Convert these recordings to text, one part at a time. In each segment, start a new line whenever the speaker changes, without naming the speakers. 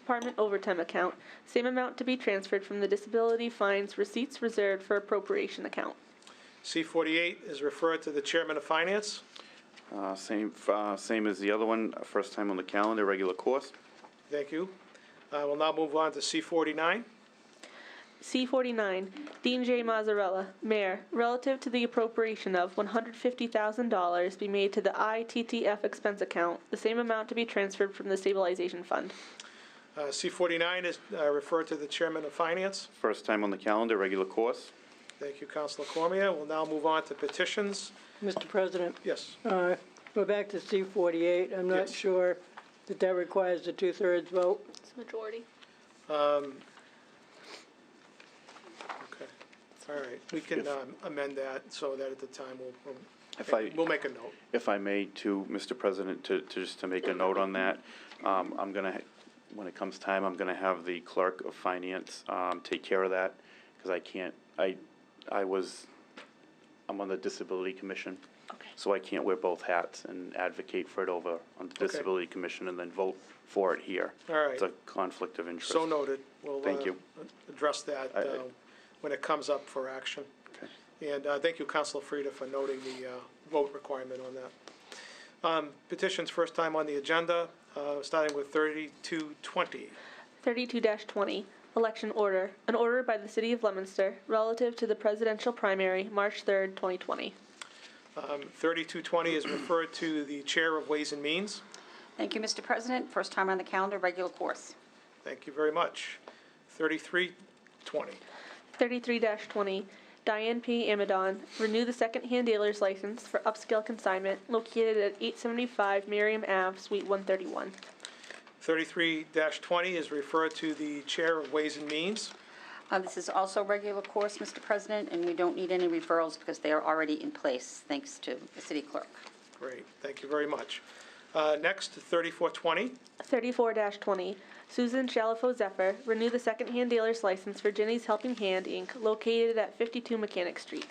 Department overtime account, same amount to be transferred from the disability fines receipts reserved for appropriation account.
C forty-eight is referred to the Chairman of Finance.
Uh, Same, uh, same as the other one, uh, first time on the calendar, regular course.
Thank you. I will now move on to C forty-nine.
C forty-nine, Dean J. Mazzarella, Mayor, relative to the appropriation of one hundred fifty thousand dollars be made to the ITTF expense account, the same amount to be transferred from the stabilization fund.
C forty-nine is uh, referred to the Chairman of Finance.
First time on the calendar, regular course.
Thank you, Counselor Cormier. We'll now move on to petitions.
Mr. President,
Yes,
uh, we're back to C forty-eight. I'm not
Yes.
sure that that requires a two-thirds vote.
It's majority.
okay. All right, we can um, amend that so that at the time we'll-
If
we'll,
I-
we'll make a note.
If I may, to Mr. President, to, to just to make a note on that, um, I'm gonna, ha- when it comes time, I'm gonna have the clerk of finance, um, take care of that, because I can't, I, I was, I'm on the disability commission.
Okay.
So I can't wear both hats and advocate for it over on the disability commission and then vote for it here.
All right.
It's a conflict of interest.
So noted. We'll,
Thank
uh,
you.
Address that
I- I-
uh, when it comes up for action.
Okay.
And uh, thank you, Counselor Frida, for noting the uh, vote requirement on that. Um, Petitions first time on the agenda, uh, starting with 3220.
Thirty-two twenty, election order, an order by the city of Leominster relative to the presidential primary, March third, twenty twenty.
Um, 3220 is referred to the Chair of Ways and Means.
Thank you, Mr. President. First time on the calendar, regular course.
Thank you very much. 3320.
Thirty-three twenty, Diane P. Amadon, renew the second-hand dealer's license for upscale consignment located at eight seventy-five Miriam Ave, Suite one thirty-one.
33-20 is referred to the Chair of Ways and Means.
Uh, This is also regular course, Mr. President, and we don't need any referrals because they are already in place, thanks to the city clerk.
Great, thank you very much. Uh, Next, 3420.
Thirty-four twenty, Susan Shalafo Zephyr, renew the second-hand dealer's license for Jenny's Helping Hand, Inc., located at fifty-two Mechanic Street.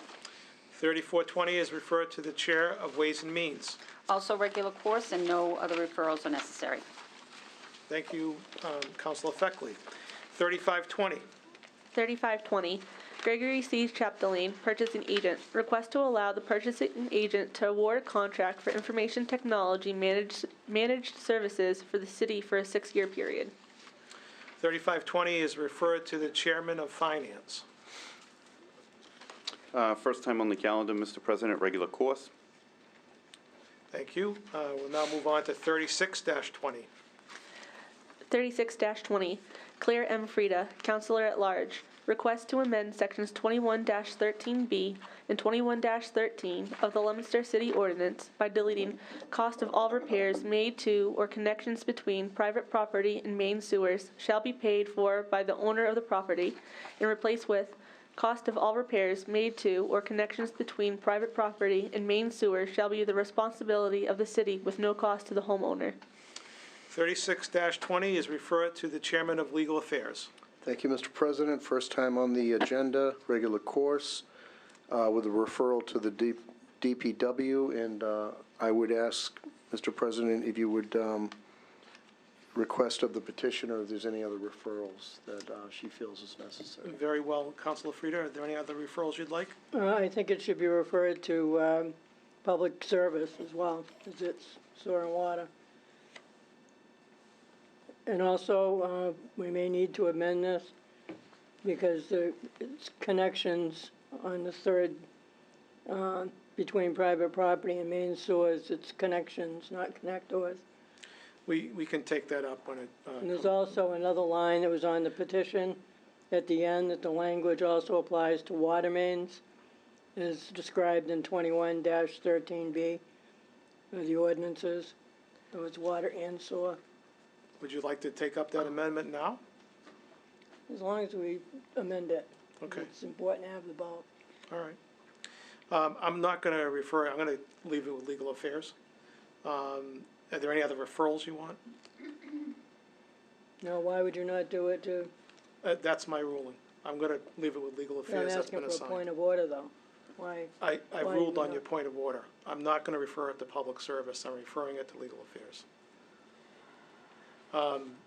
3420 is referred to the Chair of Ways and Means.
Also regular course, and no other referrals are necessary.
Thank you, um, Counselor Feckley. 3520,
3520, Gregory C. Chapdelaine, Purchasing Agent, request to allow the purchasing agent to award a contract for information technology managed, managed services for the city for a six-year period.
3520 is referred to the Chairman of Finance.
Uh, first time on the calendar, Mr. President, regular course.
Thank you. Uh, We'll now move on to 36-20.
36-20, Claire M. Frida, Counselor at Large, request to amend Sections 21-13B and 21-13 of the Leominster City Ordinance by deleting "Cost of all repairs made to or connections between private property and main sewers shall be paid for by the owner of the property," and replace with "Cost of all repairs made to or connections between private property and main sewers shall be the responsibility of the city with no cost to the homeowner."
36-20 is referred to the Chairman of Legal Affairs.
Thank you, Mr. President. First time on the agenda, regular course, uh, with a referral to the D- DPW. And uh, I would ask, Mr. President, if you would um, request of the petitioner if there's any other referrals that uh, she feels is necessary.
Very well, Counselor Frida. Are there any other referrals you'd like?
Uh, I think it should be referred to, um, public service as well, as it's sewer and water. And also, uh, we may need to amend this because the it's connections on the third, uh, between private property and main sewers, it's connections, not connectors.
We we can take that up when it,
And
uh,
there's also another line that was on the petition at the end, that the language also applies to water mains, as described in twenty-one thirteen B of the ordinances. It was water and sewer.
would you like to take up that amendment now?
As long as we amend it.
Okay.
It's important to have the ball.
All right. Um, I'm not going to refer, I'm going to leave it with legal affairs. Um, Are there any other referrals you want?
Now, why would you not do it to,
Uh, That's my ruling. I'm going to leave it with legal
I'm
affairs. That's
asking
been
for a point
assigned.
of order, though. Why?
I, I
why
ruled
you
on your
not?
point of order. I'm not going to refer it to public service. I'm referring it to legal affairs. Um,